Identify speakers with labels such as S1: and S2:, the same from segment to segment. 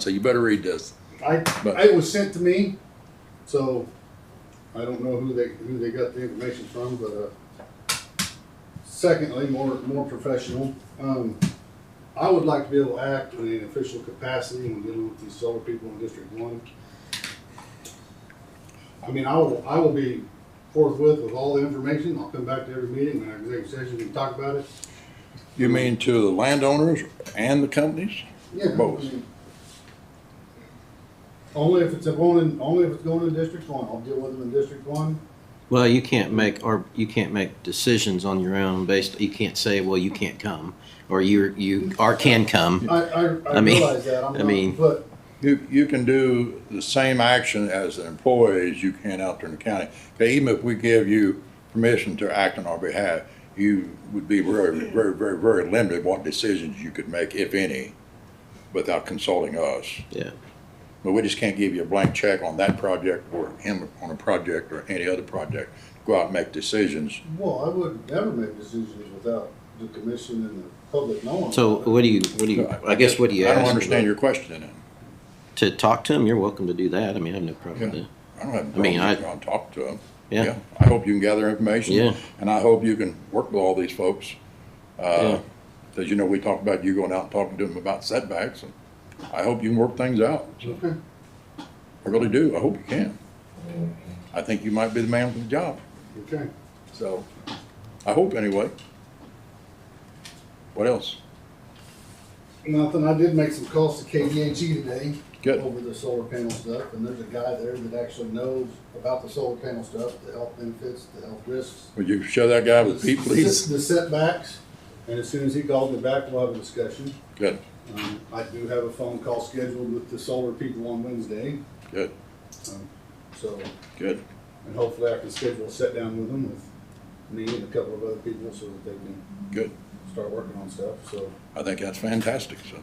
S1: so you better read this.
S2: I,
S1: But-
S2: it was sent to me, so I don't know who they, who they got the information from, but, uh, secondly, more, more professional, um, I would like to be able to act in an official capacity when dealing with these solar people in District One. I mean, I will, I will be forthwith with all the information, I'll come back to every meeting, when our executive session, we can talk about it.
S1: You mean to the landowners and the companies?
S2: Yeah. I
S1: Both.
S2: mean, Only if it's going in, only if it's going in District One, I'll deal with them in District One.
S3: Well, you can't make, or you can't make decisions on your own based, you can't say, well, you can't come, or you, you, or can come.
S2: I, I, I
S3: I mean-
S2: realize that, I'm
S3: I
S2: not,
S3: mean-
S2: but
S1: You, you can do the same action as an employee as you can out there in the county. Okay, even if we give you permission to act on our behalf, you would be very, very, very, very limited what decisions you could make, if any, without consulting us.
S3: Yeah.
S1: But we just can't give you a blank check on that project or him on a project or any other project. Go out and make decisions.
S2: Well, I would never make decisions without the commission and the public knowing.
S3: So
S2: about it.
S3: what do you, what do you, I guess what do you
S1: I don't
S3: ask?
S1: understand your question then.
S3: To talk to them, you're welcome to do that. I mean, I have no problem with that.
S1: I don't have a
S3: I mean,
S1: problem going to talk to them.
S3: Yeah.
S1: I hope you can gather information.
S3: Yeah.
S1: And I hope you can work with all these folks.
S3: Yeah.
S1: Uh, As you know, we talked about you going out and talking to them about setbacks. and I hope you can work things out.
S2: Okay,
S1: I really do. I hope you can. I think you might be the man for the job.
S2: okay.
S1: So, I hope anyway. What else?
S2: Nothing, I did make some calls to KDHE today.
S1: Good.
S2: Over the solar panel stuff, and there's a guy there that actually knows about the solar panel stuff, the health benefits, the health risks.
S1: Would you show that guy with Pete, please?
S2: The setbacks, and as soon as he calls me back, we'll have a discussion.
S1: Good,
S2: Um, I do have a phone call scheduled with the solar people on Wednesday, Um,
S1: good,
S2: so,
S1: good.
S2: and hopefully I can schedule a sit down with them, with me and a couple of other people, so that they can.
S1: Good.
S2: Start working on stuff, so,
S1: I think that's fantastic. So,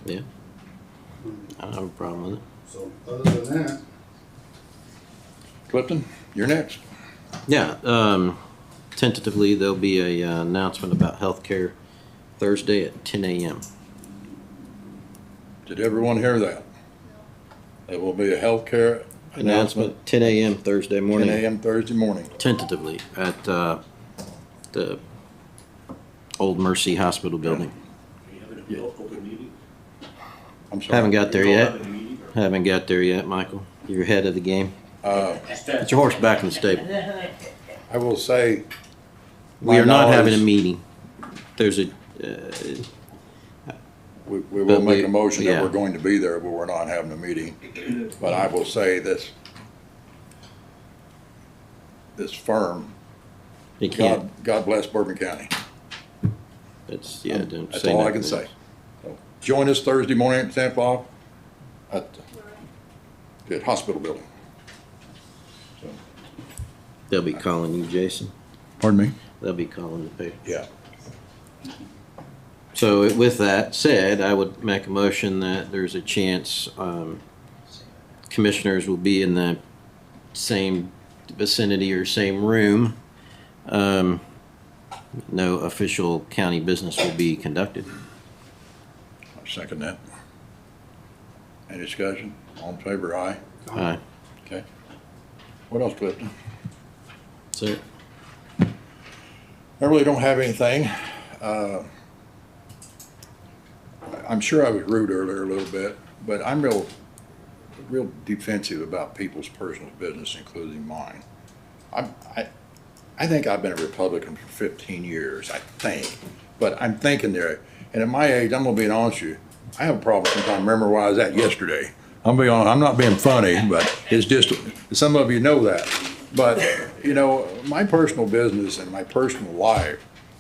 S3: I don't have a problem with it.
S2: so, other than that,
S1: Clifton, you're next.
S3: Yeah, um, tentatively, there'll be a uh, announcement about healthcare Thursday at ten AM.
S1: Did everyone hear that? There will be a healthcare announcement
S3: Announcement, ten AM Thursday
S1: ten
S3: morning.
S1: AM Thursday morning.
S3: tentatively at uh, the Old Mercy Hospital building.
S1: Yeah. I'm sorry.
S3: Haven't got there yet. Haven't got there yet, Michael. You're ahead of the game.
S1: Uh,
S3: Get your horse back in the stable.
S1: I will say.
S3: We are not having a
S1: meeting.
S3: meeting. There's a, uh,
S1: We, we will
S3: But
S1: make
S3: we-
S1: a motion that
S3: yeah.
S1: we're going to be there, but we're not having a meeting. But I will say this. This firm,
S3: you can't,
S1: God, God bless Bourbon County.
S3: it's, yeah, don't
S1: That's
S3: say
S1: all I
S3: nothing
S1: can say.
S3: else.
S1: So, Join us Thursday morning at ten o'clock at, the- at hospital building.
S3: They'll be calling you, Jason.
S1: Pardon me?
S3: They'll be calling the paper.
S1: Yeah.
S3: So with that said, I would make a motion that there's a chance um, commissioners will be in the same vicinity or same room. Um, No official county business will be conducted.
S1: I second that. Any discussion? All in favor, aye.
S3: Aye.
S1: Okay. What else, Clifton?
S3: So
S1: I really don't have anything. Uh, I'm sure I was rude earlier a little bit, but I'm real, real defensive about people's personal business, including mine. I'm, I, I think I've been a Republican for 15 years, I think, but I'm thinking there, and at my age, I'm gonna be honest with you, I have a problem sometimes remembering where I was at yesterday. I'm being honest, I'm not being funny, but it's just, some of you know that. But, you know, my personal business and my personal life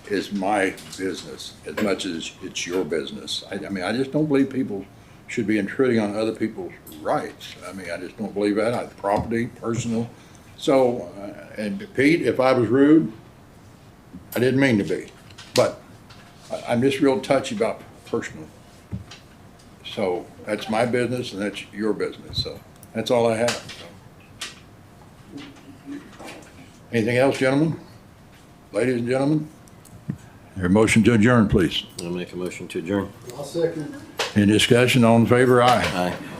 S1: is my business as much as it's your business. I, I mean, I just don't believe people should be intruding on other people's rights. I mean, I just don't believe that, I, property, personal. So, uh, and Pete, if I was rude, I didn't mean to be, but I- I'm just real touchy about personal. So that's my business and that's your business, so that's all I have. so. Anything else, gentlemen? Ladies and gentlemen? Your motion to adjourn, please.
S3: I'll make a motion to adjourn.
S2: I'll second.
S1: Any discussion, all in favor, aye.
S3: Aye.